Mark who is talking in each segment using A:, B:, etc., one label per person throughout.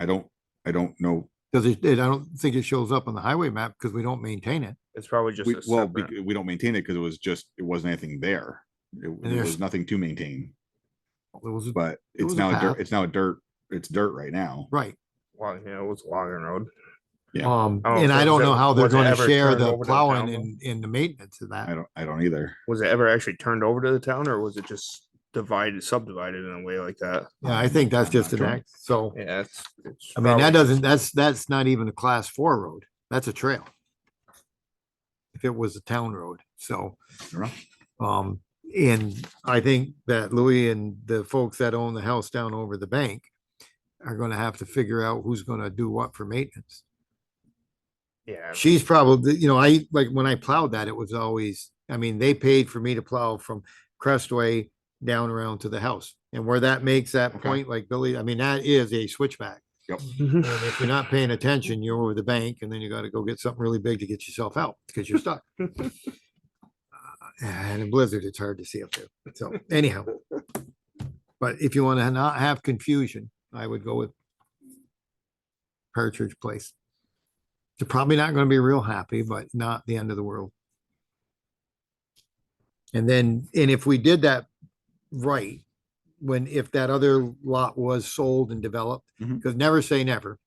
A: I don't, I don't know.
B: Cause it, it- I don't think it shows up on the highway map because we don't maintain it.
C: It's probably just
A: We,
C: a
A: well,
C: separate.
A: bec- we don't maintain it because it was just, it wasn't anything there. It there
B: there's-
A: was nothing to maintain,
B: It was,
A: but
B: It
A: it's
B: was a
A: now, a dirt.
B: path.
A: it's now a dirt, it's dirt right now.
B: right,
C: Long, yeah, it was Logan Road.
A: Yeah.
B: um,
C: I don't
B: and
C: know if
B: I
C: it
B: don't
C: was
B: know
C: ever-
B: how they're
C: Oh, was it
B: gonna
C: ever
B: share
C: turned
B: the
C: over to the
B: plowing
C: town,
B: and, and the maintenance of
A: I
B: that.
A: don't, I don't either.
C: Was it ever actually turned over to the town or was it just divided, subdivided in a way like that?
B: Yeah, I think that's
A: I'm not
B: just an
A: sure.
B: act, so,
C: Yeah, it's. it's
B: I mean,
C: probably-
B: that doesn't, that's, that's not even a class four road, that's a trail. If it was a town road, so.
A: You're right.
B: Um, and I think that Louis and the folks that own the house down over the bank are gonna have to figure out who's gonna do what for maintenance.
C: Yeah,
B: She's probably, you know, I, like, when I plowed that, it was always, I mean, they paid for me to plow from Crestway down around to the house. And where that makes that
A: Okay.
B: point, like Billy, I mean, that is a switchback.
C: Mhm.
B: And if you're not paying attention, you're over the bank and then you gotta go get something really big to get yourself out because you're stuck. Uh, And in blizzard, it's hard to see up there. So anyhow. But if you wanna not have confusion, I would go with Partridge Place. They're probably not gonna be real happy, but not the end of the world. And then, and if we did that right, when, if that other lot was sold and developed,
A: Mhm.
B: because never say never,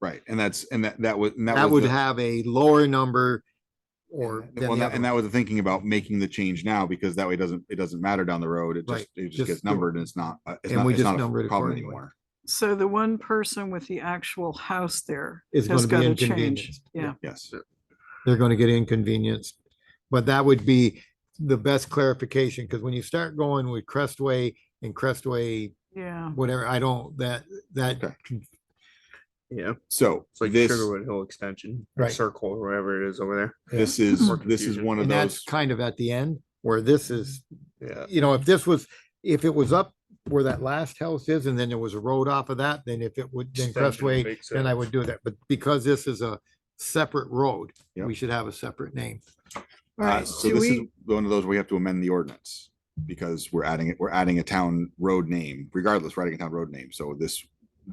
A: Right, and that's, and that, that was, and that
B: that
A: was.
B: would
A: the-
B: have a lower number
A: and
B: or.
A: that-
B: than
A: well,
B: the
A: that-
B: other
A: And that was the thinking about making the change now, because that way it doesn't, it doesn't matter down the road, it
B: Right,
A: just, it
B: just
A: just gets
B: do-
A: numbered and it's not, uh, it's
B: and
A: not,
B: we
A: it's
B: just
A: not
B: number it
A: a problem
B: accordingly.
A: anymore.
D: So the one person with the actual house there
B: Is
D: has got
B: gonna be
D: to change.
B: inconvenienced.
D: Yeah.
A: Yes,
B: They're gonna get inconvenienced, but that would be the best clarification, because when you start going with Crestway and Crestway,
D: Yeah.
B: whatever, I don't, that, that,
A: Okay.
C: Yeah,
A: so
C: it's like
A: this,
C: Sugarwood Hill Extension, or
B: Right.
C: Circle, or whatever it is over
A: this is,
C: More
A: this is
C: confusion.
A: one of
B: and that's
A: those,
B: kind of at the end where this is
C: there. Yeah.
B: you know, if this was, if it was up where that last house is and then there was a road off of that, then if it would, then
C: Extension
B: Crestway,
C: makes
B: then I
C: sense.
B: would do that. But because this is a separate road,
A: Yep.
B: we should have a separate name.
D: All
A: uh,
D: right.
A: so
D: Do
A: this is
D: we,
A: one of those we have to amend the ordinance. Because we're adding it, we're adding a town road name, regardless, we're adding a town road name, so this,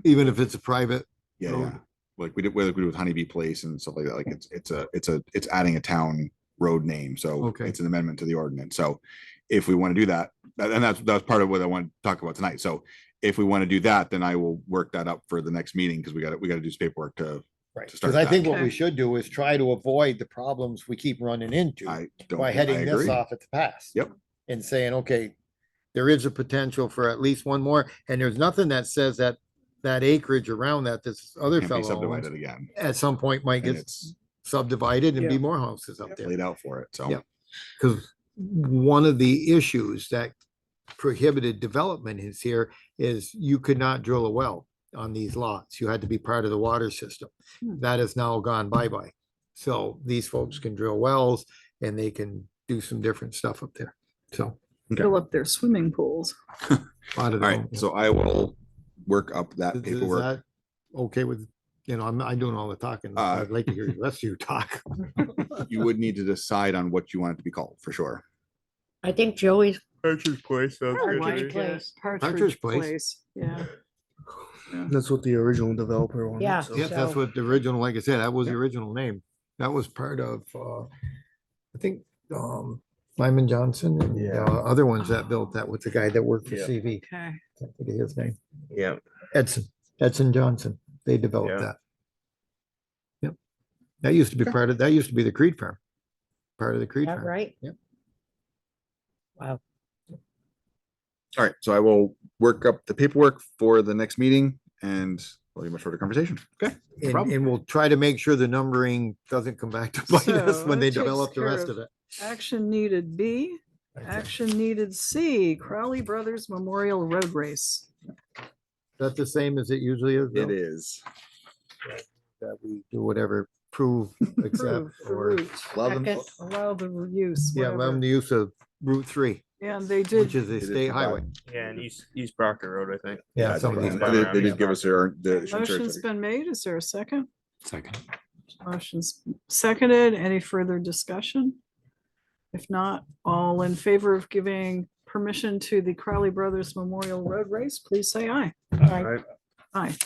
B: Even if it's a private,
A: yeah,
B: Road.
A: yeah. Like we did, whether we do with Honeybee Place and stuff like that, like it's, it's a, it's a, it's adding a town road name, so.
B: Okay.
A: It's an amendment to the ordinance, so if we want to do that, tha- and that's, that's part of what I want to talk about tonight, so. If we want to do that, then I will work that up for the next meeting, because we got, to we got to do some paperwork to,
B: right?
A: To
B: Because
A: start
B: I
A: that.
B: think what we
D: Okay.
B: should do is try to avoid the problems we keep running into
A: I don't.
B: by
A: I
B: heading this
A: agree.
B: off at the pass.
A: Yep.
B: And saying, okay, there is a potential for at least one more, and there's nothing that says that, that acreage around that this other
A: Can't be
B: fellow owns
A: subdivided again,
B: at some point might
A: and
B: get
A: it's
B: subdivided and be
D: Yeah.
B: more houses up there.
A: laid out for it, so.
B: Yep. Because one of the issues that prohibited development is here is you could not drill a well on these lots. You had to be part of the water system.
D: Hmm.
B: That has now gone bye-bye. So these folks can drill wells and they can do some different stuff up there. So.
D: fill up their swimming pools?
B: a lot of
A: All right,
B: them-
A: so I will work up that
B: Is- is
A: paperwork.
B: that Okay with, you know, I'm, I'm doing all the talking.
A: Uh,
B: I'd like to hear the rest of you talk.
A: You would need to decide on what you want it to be called, for sure.
E: I think Joey's,
C: Partridge Place. sounds
D: I
C: good to
D: like
C: me.
E: Partridge Place.
D: it. Partridge
B: Partridge Place.
D: Place. Yeah.
C: That's what the original developer wanted.
E: Yeah.
C: so-
B: Yeah, that's
E: So-
B: what the original, like I said, that was the
A: Yeah.
B: original name. That was part of, uh, I think, um, Lyman Johnson and,
C: Yeah.
B: uh, other ones that built that with the guy that worked for
C: Yeah.
B: CV.
D: Okay.
B: Can't think of his name.
C: Yeah,
B: Edson, Edson Johnson. They developed
C: Yeah.
B: that. Yep. That used to be
A: Okay.
B: part of, that used to be the Creed firm. Part of the
E: is
B: Creed
E: that
B: firm.
E: right?
B: Yep.
E: Wow.
A: All right, so I will work up the paperwork for the next meeting and we'll have a shorter conversation. Okay.
B: And,
A: problem.
B: and we'll try to make sure the numbering doesn't come back to bite us
D: So
B: when
D: that
B: they
D: takes
B: develop the
D: care
B: rest of
D: of-
B: it.
D: Action needed B,
B: Okay. Is
D: action needed C, Crowley Brothers Memorial Road Race.
B: that the same as it usually is?
A: It
B: Bill?
A: is.
B: That we do whatever, prove, accept,
D: Approve the
B: or.
D: route.
A: Love and-
E: Second.
D: Allow the use,
B: Yeah, allow them
D: whatever.
B: to use of Route three,
D: And they
B: which
D: did,
B: is a
A: is
B: state highway.
C: yeah, and East, East Proctor Road, I think.
B: Yeah,
A: I
B: some
A: think They
B: of these.
C: Yeah.
A: they- they did give us their. their insurance
D: motion's
A: already.
D: been made. Is there a second?
F: Second.
D: Motion's seconded. Any further discussion? If not, all in favor of giving permission to the Crowley Brothers Memorial Road Race, please say aye.
C: Right.
D: Aye.